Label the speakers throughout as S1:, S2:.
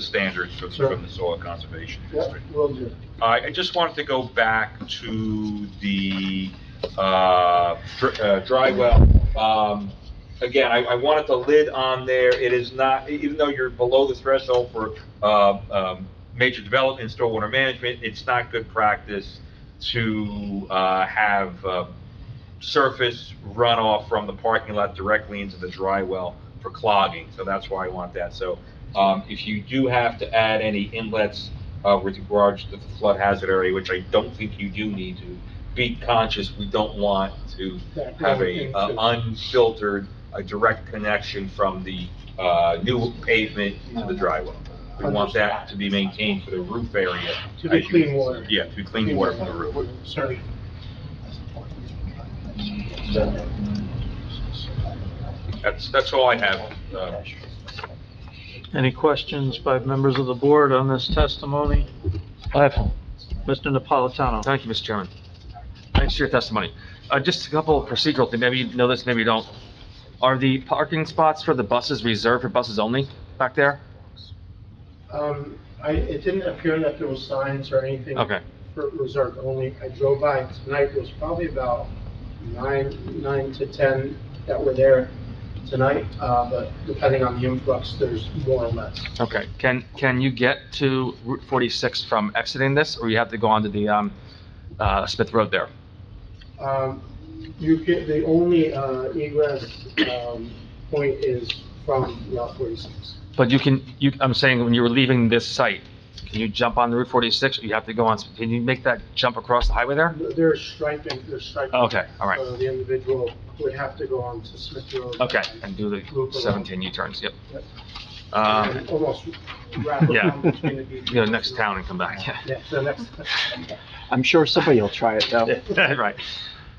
S1: the standards for-
S2: Sure.
S1: from the Soil Conservation
S2: Yeah,
S1: District.
S2: will do.
S1: I I just wanted to go back to the uh, dr- uh, dry well. Um, Again, I I wanted the lid on there. It is not, e- even though you're below the threshold for uh, um, major development, stormwater management, it's not good practice to uh, have uh, surface runoff from the parking lot directly into the dry well for clogging. So that's why I want that. So um, if you do have to add any inlets uh, with regards to the flood hazard area, which I don't think you do need to, be conscious, we don't want to
S2: That
S1: have
S2: going
S1: a
S2: into-
S1: uh, unfiltered, a direct connection from the uh, new pavement to the dry well. We want that to be maintained for the roof area.
S2: To be
S1: as you-
S2: clean water.
S1: Yeah, to be clean water for the roof.
S2: Sorry.
S1: That's, that's all I have. uh,
S3: Any questions by members of the board on this testimony?
S4: I have,
S3: Mr. Napolitano?
S4: thank you, Mr. Chairman. Thanks for your testimony. Uh, just a couple of procedural things, maybe you know this, maybe you don't. Are the parking spots for the buses reserved for buses only back there?
S2: Um, I, it didn't appear that there was signs or anything.
S4: Okay.
S2: For reserve only. I drove by tonight, there was probably about nine, nine to 10 that were there tonight, uh, but depending on the influx, there's more or less.
S4: Okay, can, can you get to Route 46 from exiting this, or you have to go onto the, um, uh, Smith Road there?
S2: Um, you get, the only, uh, egress, um, point is from Route 46.
S4: But you can, you, I'm saying when you were leaving this site, can you jump on Route 46, or you have to go on, can you make that jump across the highway there?
S2: They're striping, they're striping.
S4: Okay, all right.
S2: So the individual would have to go on to Smith Road.
S4: Okay, and do the 17 U-turns, yep. Um,
S2: And Almost wrap around
S4: yeah.
S2: between the beaches.
S4: go to next town and come back, yeah.
S2: Yeah, so next,
S5: I'm sure somebody will try it, though.
S4: Right.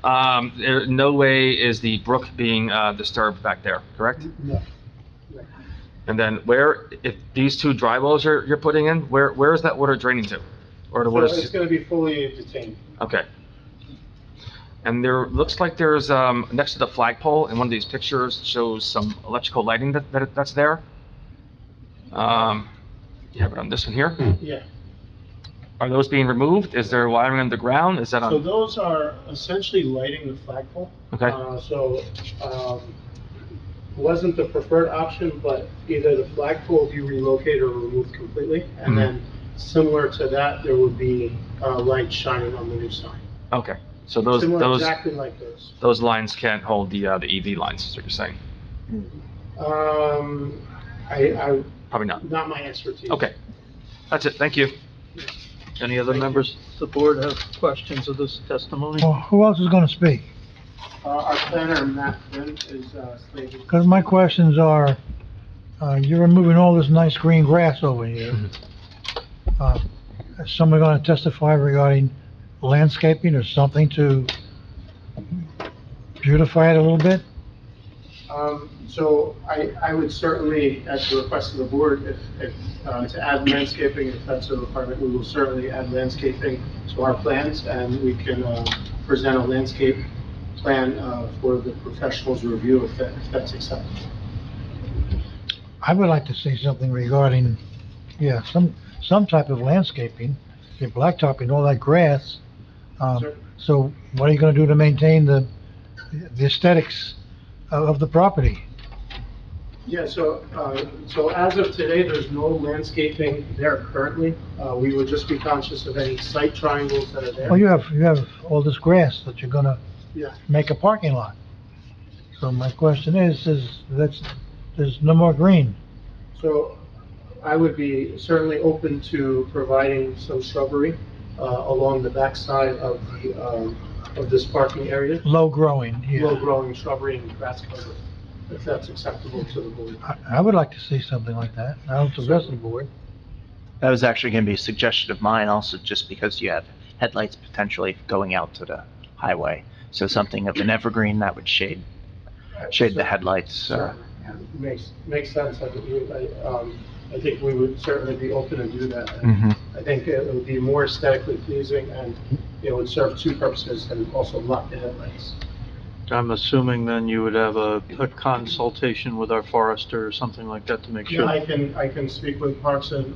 S4: Um, there, no way is the brook being, uh, disturbed back there, correct?
S2: no,
S4: And then where, if these two dry wells you're, you're putting in, where, where is that water draining to? Or the
S2: so
S4: water's
S2: it's gonna be fully detained.
S4: Okay. And there, looks like there's, um, next to the flagpole, in one of these pictures, shows some electrical lighting that, that, that's there. Um, you have it on this one here.
S2: Yeah,
S4: Are those being removed? Is there wiring underground? Is that
S2: so
S4: on?
S2: those are essentially lighting the flagpole.
S4: Okay.
S2: Uh, So, um, wasn't the preferred option, but either the flagpole be relocated or removed completely. And
S4: Mhm.
S2: then similar to that, there would be uh, lights shining on the new sign.
S4: Okay, so those,
S2: Similar,
S4: those,
S2: Exactly like those.
S4: those lines can't hold the, uh, the EV lines, is what you're saying?
S2: Um, I, I,
S4: Probably not.
S2: not my expertise.
S4: Okay, that's it, thank you.
S3: Any other members of the board have questions of this testimony?
S6: Well, who else is gonna speak?
S2: Uh, our planner, Matt Flynn, is, uh, slated.
S6: Because my questions are, uh, you're removing all this nice green grass over here. Uh, Is someone gonna testify regarding landscaping or something to beautify it a little bit?
S2: Um, so I, I would certainly, at the request of the board, if, if, uh, to add landscaping, if that's a requirement, we will certainly add landscaping to our plans, and we can, uh, present a landscape plan, uh, for the professionals' review if that, if that's acceptable.
S6: I would like to see something regarding, yeah, some, some type of landscaping, you're blacktopping all that grass. Um,
S2: Sure.
S6: so what are you gonna do to maintain the, the aesthetics of, of the property?
S2: Yeah, so, uh, so as of today, there's no landscaping there currently. Uh, we would just be conscious of any site triangles that are there.
S6: Well, Oh, you have, you have all this grass that you're gonna
S2: Yeah.
S6: make a parking lot. So my question is, is that's, there's no more green.
S2: So I would be certainly open to providing some shrubbery uh, along the backside of the, um, of this parking area,
S6: Low growing, yeah.
S2: low-growing shrubbery and grass cover, if that's acceptable to the board.
S6: I, I would like to see something like that. I don't suggest the board.
S5: That was actually going to be a suggestion of mine also, just because you have headlights potentially going out to the highway. So something of an evergreen that would shade, shade the headlights. uh,
S2: Makes, makes sense. I think we- I, um, I think we would certainly be open to do that.
S5: mhm.
S2: I think it would be more aesthetically pleasing and it would serve two purposes and also block the headlights.
S3: I'm assuming then you would have a, a consultation with our forester or something like that to make sure.
S2: I can, I can speak with Parks and